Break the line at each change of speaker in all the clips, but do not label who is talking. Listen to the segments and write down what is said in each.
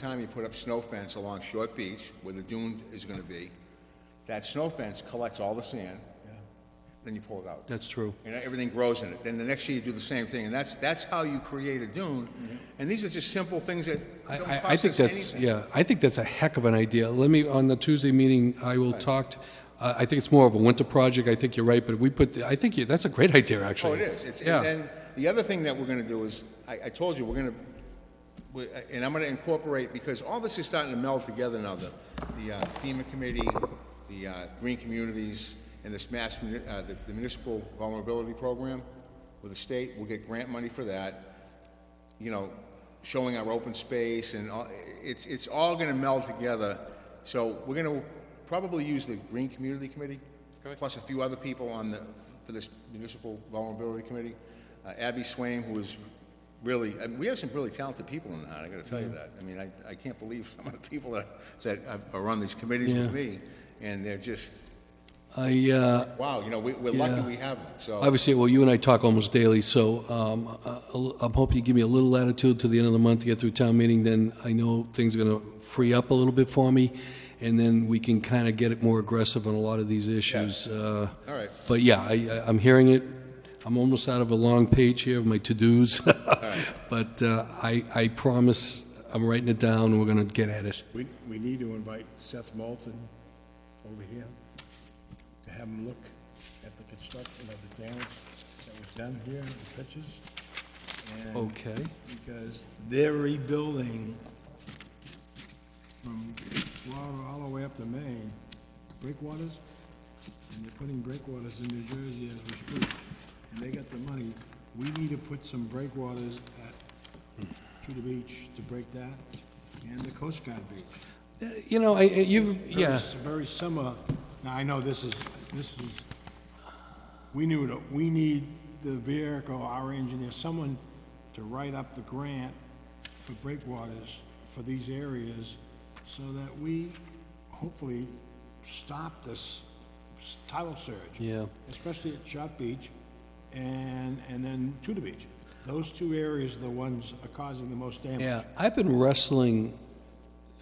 time you put up snow fence along Short Beach, where the dune is gonna be, that snow fence collects all the sand, then you pull it out.
That's true.
And everything grows in it. Then the next year, you do the same thing, and that's, that's how you create a dune. And these are just simple things that
I-
don't
I,
cost
I think
us
that's,
anything.
yeah, I think that's a heck of an idea. Let me, on the Tuesday meeting, I will talk, t- uh, I think it's more of a winter project, I think you're right, but if we put, I think you, that's a great idea,
Oh,
actually.
it is. It's, and
Yeah,
then, the other thing that we're gonna do is, I, I told you, we're gonna, we- and I'm gonna incorporate, because all this is starting to meld together now, the, the uh, FEMA committee, the, uh, green communities, and this mass, muni- uh, the the municipal vulnerability program with the state, we'll get grant money for that. You know, showing our open space and all, it's, it's all gonna meld together. So we're gonna probably use the green community committee, plus a few other people on the, for this municipal vulnerability committee. Uh, Abby Swaim, who is really, I mean, we have some really talented people in the town, I gotta tell you that. I mean, I, I can't believe some of the people that, that are on these committees with
Yeah.
me, and they're just,
I, uh,
wow, you know, we, we're lucky we have them, so.
obviously, well, you and I talk almost daily, so, um, I- I'll- I'm hoping you give me a little latitude to the end of the month to get through town meeting, then I know things are gonna free up a little bit for me, and then we can kinda get it more aggressive on a lot of these issues, uh,
All right,
But yeah, I, I- I'm hearing it. I'm almost out of a long page here of my to-dos. But uh, I, I promise, I'm writing it down, and we're gonna get at it.
We, we need to invite Seth Moulton over here to have him look at the construction of the damage that was done here, the pitches. and-
Okay.
Because they're rebuilding from Florida all the way up to Maine, breakwaters, and they're putting breakwaters in New Jersey as we speak. And they got the money. We need to put some breakwaters at, to the beach to break that, and the Coast Guard beach.
You know, I, I- you've,
Very-
yeah,
Very similar, now, I know this is, this is, we knew, that we need the vehicle, our engineer, someone to write up the grant for breakwaters for these areas, so that we hopefully stop this s- tidal surge.
Yeah.
Especially at Shot Beach and, and then Tudor Beach. Those two areas are the ones are causing the most damage.
yeah. I've been wrestling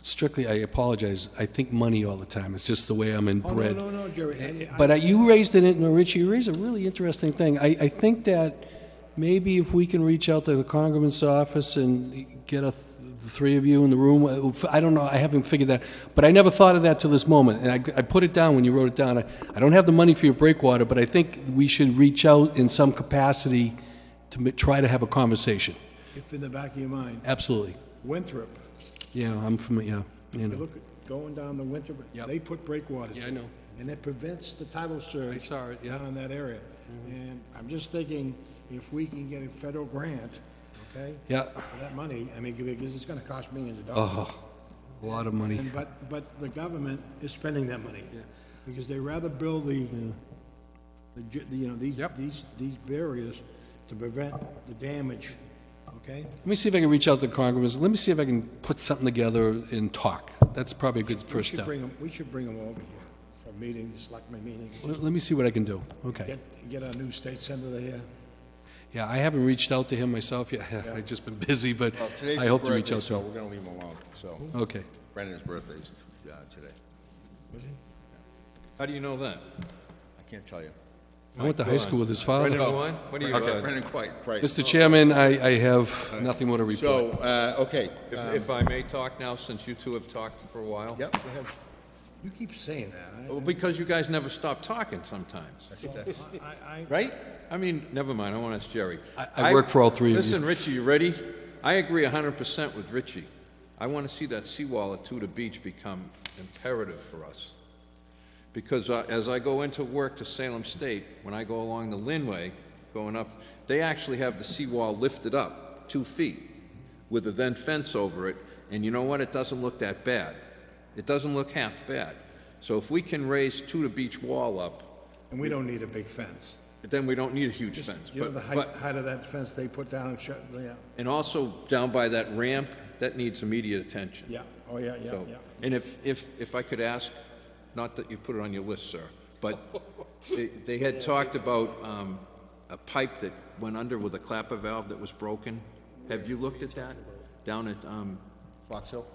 strictly, I apologize, I think money all the time. It's just the way I'm
Oh, no,
inbred.
no, no, Jerry, I-
But uh, you raised it, and Richie, you raised a really interesting thing. I, I think that maybe if we can reach out to the Congressman's office and get a, th- the three of you in the room, uh, f- I don't know, I haven't figured that, but I never thought of that till this moment, and I, I put it down when you wrote it down. I, I don't have the money for your breakwater, but I think we should reach out in some capacity to m- try to have a conversation.
if in the back of your mind,
Absolutely.
Winthrop,
Yeah, I'm from, yeah, you
You
know.
look, at going down the winter, but
Yep.
they put breakwaters.
Yeah, I know.
And it prevents the tidal surge.
I saw it, yeah. Mm-hmm.
Down in that area. And I'm just thinking, if we can get a federal grant, okay?
Yeah,
For that money, I mean, because it's gonna cost millions of dollars.
oh, a lot of money.
And but, but the government is spending that money. Because they rather build the, the, ju- the, you know, these,
Yep.
these, these barriers to prevent the damage, okay?
Let me see if I can reach out to Congressman. Let me see if I can put something together and talk. That's probably a good first
We should
step.
bring 'em- we should bring them over here for meetings, like my meetings.
Let let me see what I can do. Okay.
Get, get our new state senator here.
Yeah, I haven't reached out to him myself yet. I've just been busy, but
well, today's
I
his
hope to reach
birthday,
out to
so
him.
we're gonna leave him alone, so.
Okay.
Brendan's birthday's, uh, today.
How do you know that?
I can't tell you.
I went to high school with his
Brendan
father.
Gwine? What do you,
Uh, oh. Okay,
uh,
Brendan, quite, right.
Mr. Chairman, I, I have nothing more to report.
So, uh, okay,
if-
uh,
if I may talk now, since you two have talked for a while?
yep, go ahead.
You keep saying that.
Well, because you guys never stop talking sometimes,
I, I, I,
right? I mean, never mind, I want to ask Jerry.
I- I work for all three of you.
Listen, Richie, you ready? I agree hundred percent with Richie. I want to see that seawall at Tudor Beach become imperative for us. Because uh, as I go into work to Salem State, when I go along the Linway, going up, they actually have the seawall lifted up two feet with a then fence over it, and you know what? It doesn't look that bad. It doesn't look half bad. So if we can raise Tudor Beach wall up,
and we don't need a big fence.
then we don't need a huge fence.
You know,
But-
the
but-
height, height of that fence they put down and shut, yeah,
And also down by that ramp, that needs immediate attention.
yeah, oh, yeah, yeah,
So-
yeah.
And if, if, if I could ask, not that you put it on your list, sir, but they, they had talked about, um, a pipe that went under with a clapper valve that was broken. Have you looked at that? Down at, um,
Fox Hill?